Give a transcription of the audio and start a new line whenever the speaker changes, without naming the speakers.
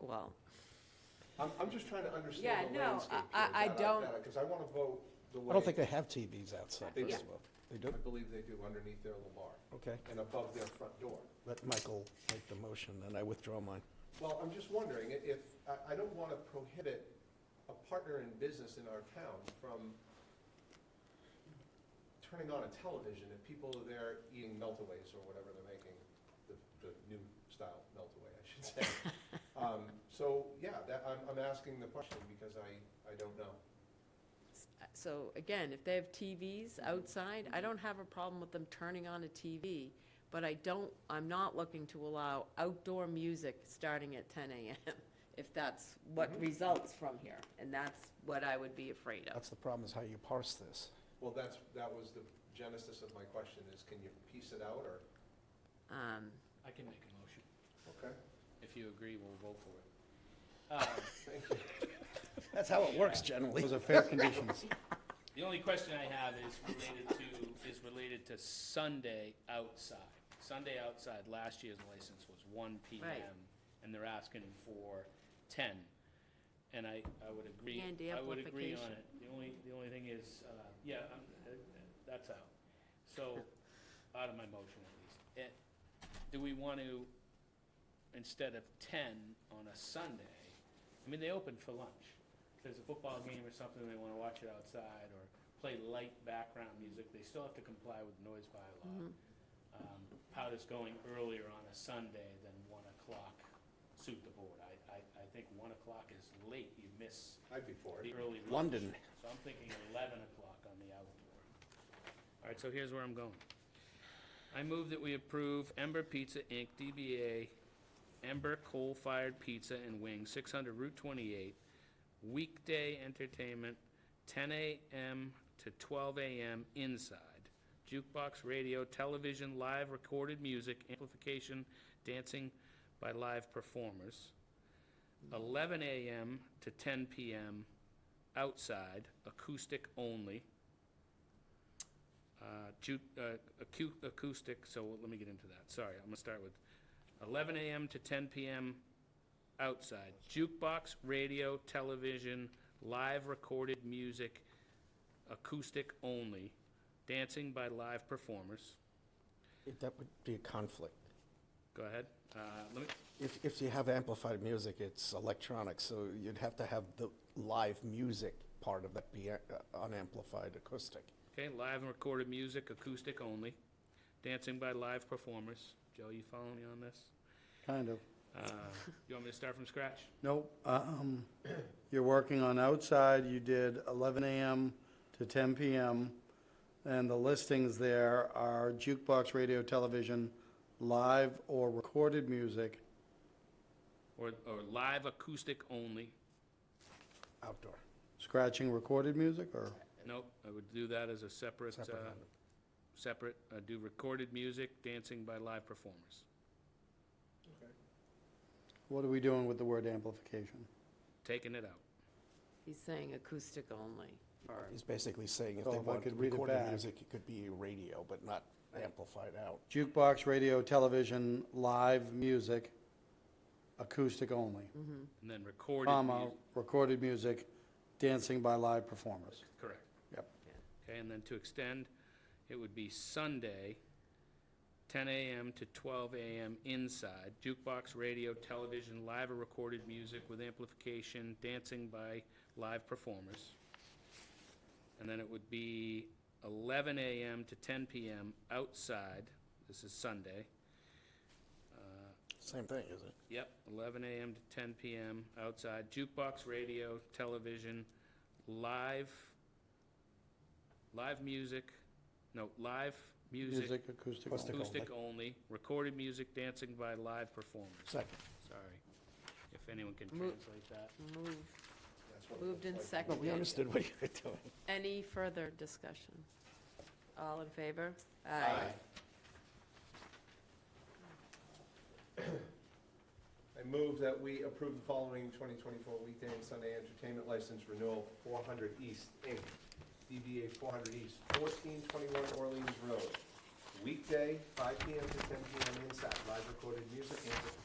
well,
I'm, I'm just trying to
Yeah,
understand the
no, I-
landscape.
I- I don't-
Because I want to vote the way.
I don't think they have TVs outside,
They
first
do.
of all. They
I
do?
believe they do underneath their Lamar
Okay.
and above their front door.
Let Michael make the motion, and I withdraw mine.
Well, I'm just wondering i- if, I, I don't want to prohibit a partner in business in our town from turning on a television if people are there eating meltaways or whatever they're making, the, the new style meltaway, I should say. Um, So, yeah, that, I'm, I'm asking the question because I, I don't know.
so again, if they have TVs outside, I don't have a problem with them turning on a TV, but I don't, I'm not looking to allow outdoor music starting at ten AM, if that's what results from here, and that's what I would be afraid of.
That's the problem, is how you parse this.
Well, that's, that was the genesis of my question is can you piece it out or,
Um,
I can make a motion.
okay?
If you agree, we'll vote for it. Um,
Thank you.
That's how it works generally.
Those are fair conditions.
The only question I have is related to, is related to Sunday outside. Sunday outside, last year's license was one PM.
Right.
And they're asking for ten. And I, I would agree.
And the
I would agree on
amplification.
it. The only, the only thing is, uh, yeah, I'm, uh, that's out. So, out of my motion at least. Eh, Do we want to, instead of ten on a Sunday, I mean, they open for lunch. If there's a football game or something, they wanna watch it outside, or play light background music, they still have to comply with noise
Mm-hmm.
bylaw. Um, Powder's going earlier on a Sunday than one o'clock suit the board. I, I, I think one o'clock is late, you miss
I'd be for it.
the early lunch.
London.
So I'm thinking eleven o'clock on the outdoor. All right, so here's where I'm going. I move that we approve Ember Pizza Inc., DBA Ember Coal Fired Pizza and Wings, six hundred Route twenty-eight, weekday entertainment, ten AM to twelve AM inside. Jukebox, radio, television, live recorded music, amplification, dancing by live performers. Eleven AM to ten PM outside, acoustic only. Uh, ju, uh, acu- acoustic, so let me get into that, sorry, I'm gonna start with eleven AM to ten PM outside, jukebox, radio, television, live recorded music, acoustic only, dancing by live performers,
That would be a conflict.
go ahead, uh, let me,
If, if you have amplified music, it's electronic, so you'd have to have the live music part of that be uh, unamplified acoustic.
okay, live and recorded music, acoustic only, dancing by live performers, Joe, you follow me on this?
Kind of.
Uh, you want me to start from scratch?
Nope. um, You're working on outside, you did 11 AM to 10 PM, and the listings there are jukebox, radio, television, live or recorded music,
Or, or live acoustic only?
Outdoor.
scratching recorded music, or?
Nope, I would do that as a separate, uh,
Separate item.
separate, uh, do recorded music, dancing by live performers.
What are we doing with the word amplification?
Taking it out.
he's saying acoustic only, or,
He's basically saying if
Oh,
they
if I
want
could read it
recorded
back.
music, it could be radio, but not amplified out.
Jukebox, radio, television, live music, acoustic only,
Mm-hmm.
And then recorded
comma,
music,
recorded music, dancing by live performers.
correct.
Yep.
Okay, and then to extend, it would be Sunday, ten AM to twelve AM inside, jukebox, radio, television, live or recorded music with amplification, dancing by live performers. And then it would be eleven AM to ten PM outside, this is Sunday. Uh,
Same thing, is it?
Yep, eleven AM to ten PM outside, jukebox, radio, television, live, live music, no, live music,
Music, acoustic only.
Acoustic
acoustic only, recorded music, dancing by live performers.
Second.
Sorry, if anyone can
Mo-
translate that.
moved,
That's what it
moved and
looks like.
No, we
seconded.
understood what you were doing.
Any further discussion? All in favor?
I move that we approve the following 2024 weekday and Sunday entertainment license renewal, 400 East Inc., DBA 400 East, 1421 Orleans Road. Weekday, 5 PM to 10 PM inside, live recorded music,